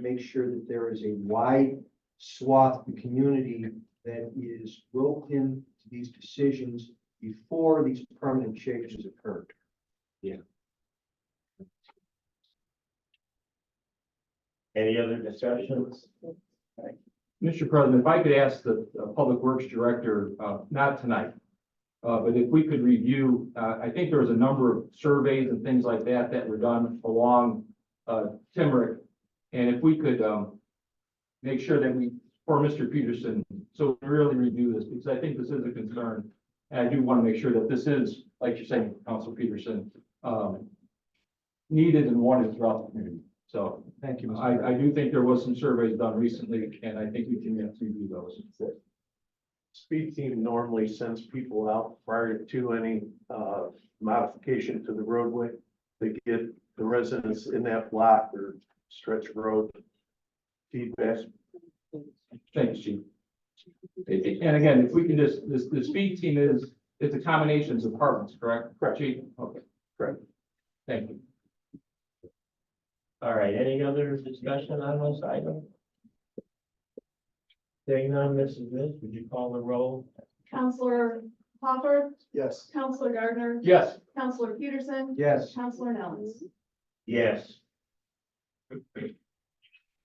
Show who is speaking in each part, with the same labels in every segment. Speaker 1: make sure that there is a wide swath of the community that is roped in to these decisions before these permanent changes occurred.
Speaker 2: Any other discussions?
Speaker 3: Mr. President, if I could ask the uh, Public Works Director, uh, not tonight, uh, but if we could review, uh, I think there was a number of surveys and things like that that were done along uh, Timmerick. And if we could um, make sure that we, for Mr. Peterson, so we really review this, because I think this is a concern. And I do want to make sure that this is, like you're saying, Council Peterson, um, needed and wanted throughout the community. So
Speaker 1: Thank you. Mr. President.
Speaker 3: I, I do think there was some surveys done recently, and I think we can review those.
Speaker 4: Speed team normally sends people out prior to any uh modification to the roadway. They get the residents in that block or stretch road. Feedback,
Speaker 3: Thanks, Chief. And again, if we can just, this, the speed team is, it's a combination of departments, correct?
Speaker 4: Correct.
Speaker 3: Chief, okay.
Speaker 4: Correct.
Speaker 3: Thank you.
Speaker 2: All right, any other discussion on this item? Seeing none, Mrs. Miss, would you call the roll?
Speaker 5: Counselor Hopper,
Speaker 4: yes.
Speaker 5: Counselor Gardner,
Speaker 3: Yes,
Speaker 5: Counselor Peterson,
Speaker 1: Yes,
Speaker 5: Counselor Nellens.
Speaker 2: Yes.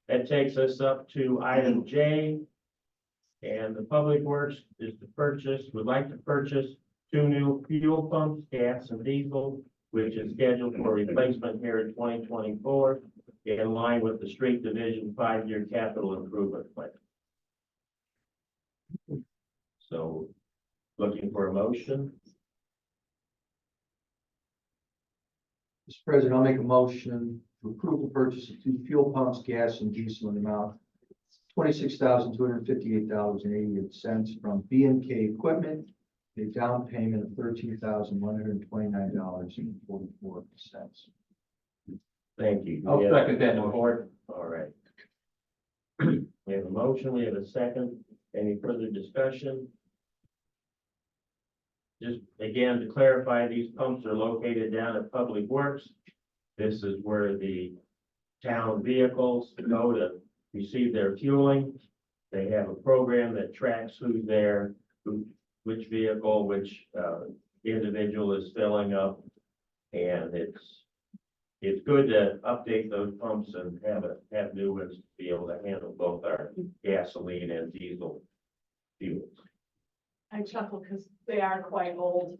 Speaker 2: That takes us up to item J. And the Public Works is to purchase, would like to purchase two new fuel pumps, gas and diesel, which is scheduled for replacement here in twenty twenty-four, in line with the Street Division five-year capital improvement plan. So, looking for a motion?
Speaker 1: Mr. President, I'll make a motion to approve the purchase of two fuel pumps, gas and diesel in the amount twenty-six thousand, two hundred and fifty-eight dollars and eighty-eight cents from B and K Equipment, a down payment of thirteen thousand, one hundred and twenty-nine dollars and forty-four cents.
Speaker 2: Thank you. Do we
Speaker 3: I'll
Speaker 2: have-
Speaker 3: second that motion.
Speaker 2: All right. We have a motion, we have a second. Any further discussion? Just again, to clarify, these pumps are located down at Public Works. This is where the town vehicles go to receive their fueling. They have a program that tracks who's there, who, which vehicle, which, uh, individual is filling up. And it's it's good to update those pumps and have a, have new ones to be able to handle both our gasoline and diesel fuels.
Speaker 6: I chuckle because they are quite old.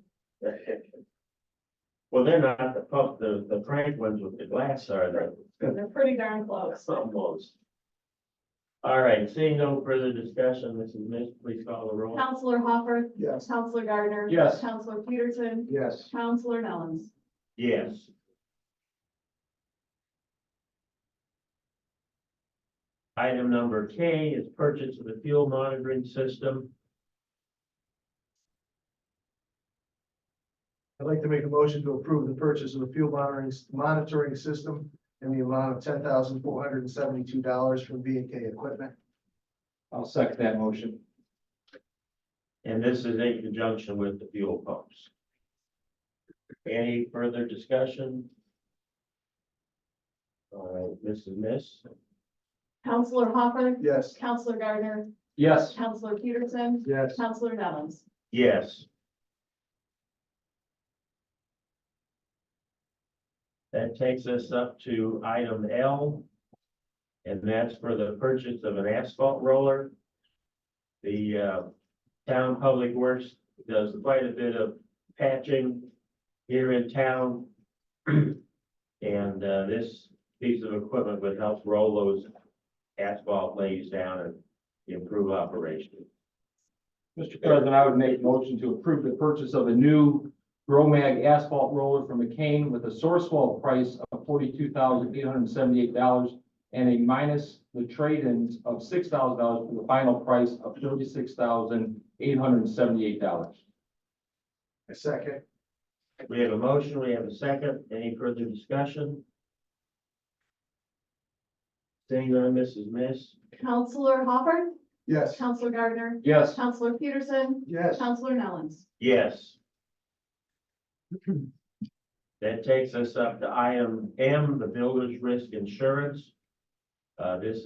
Speaker 2: Well, they're not the pump, the, the crank ones with the glass are the
Speaker 6: They're pretty darn close.
Speaker 2: almost. All right, seeing no further discussion, Mrs. Miss, please call the roll.
Speaker 5: Counselor Hopper,
Speaker 4: Yes.
Speaker 5: Counselor Gardner.
Speaker 3: Yes.
Speaker 5: Counselor Peterson,
Speaker 1: Yes.
Speaker 5: Counselor Nellens.
Speaker 2: Yes. Item number K is purchase of the fuel monitoring system.
Speaker 4: I'd like to make a motion to approve the purchase of the fuel monitoring monitoring system in the amount of ten thousand four hundred and seventy-two dollars from B and K Equipment.
Speaker 3: I'll second that motion.
Speaker 2: And this is in conjunction with the fuel pumps. Any further discussion? All right, Mrs. Miss?
Speaker 5: Counselor Hopper,
Speaker 4: Yes.
Speaker 5: Counselor Gardner,
Speaker 3: Yes,
Speaker 5: Counselor Peterson,
Speaker 1: Yes.
Speaker 5: Counselor Nellens.
Speaker 2: Yes. That takes us up to item L. And that's for the purchase of an asphalt roller. The uh, town public works does quite a bit of patching here in town. And uh, this piece of equipment would help roll those asphalt lays down and improve operation.
Speaker 3: Mr. President, I would make a motion to approve the purchase of a new Gromag asphalt roller from McCain with a source wall price of forty-two thousand eight hundred and seventy-eight dollars and a minus the trade-ins of six thousand dollars for the final price of thirty-six thousand eight hundred and seventy-eight dollars.
Speaker 4: A second.
Speaker 2: We have a motion, we have a second, any further discussion? Seeing none, Mrs. Miss?
Speaker 5: Counselor Hopper,
Speaker 4: Yes.
Speaker 5: Counselor Gardner,
Speaker 3: Yes,
Speaker 5: Counselor Peterson,
Speaker 4: Yes.
Speaker 5: Counselor Nellens.
Speaker 2: Yes. That takes us up to item M, the builder's risk insurance. Uh, this